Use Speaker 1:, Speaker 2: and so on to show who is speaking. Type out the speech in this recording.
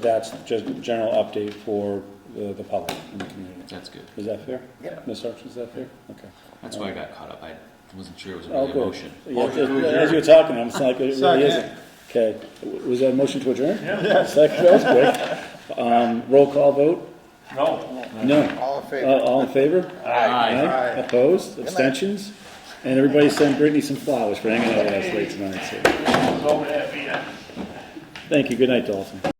Speaker 1: That's just a general update for the, the public and the community.
Speaker 2: That's good.
Speaker 1: Is that fair?
Speaker 3: Yep.
Speaker 1: Ms. Sargent, is that fair? Okay.
Speaker 2: That's why I got caught up. I wasn't sure it was
Speaker 1: Oh,
Speaker 2: really a
Speaker 1: good.
Speaker 2: motion.
Speaker 1: Yeah,
Speaker 3: Motion to
Speaker 1: as- As you were talking, I'm just like, it really
Speaker 3: Second.
Speaker 1: isn't. Okay, W- was that a motion to adjourn? Yeah. Second, that was quick. Um, roll call vote?
Speaker 4: No.
Speaker 1: No.
Speaker 3: All in
Speaker 1: Uh,
Speaker 3: favor?
Speaker 1: All in favor?
Speaker 2: Aye.
Speaker 3: Aye.
Speaker 1: Opposed, abstentions? And everybody send Brittany some flowers for hanging out with us late tonight, so.
Speaker 4: So happy.
Speaker 1: Thank you, good night, Dalton.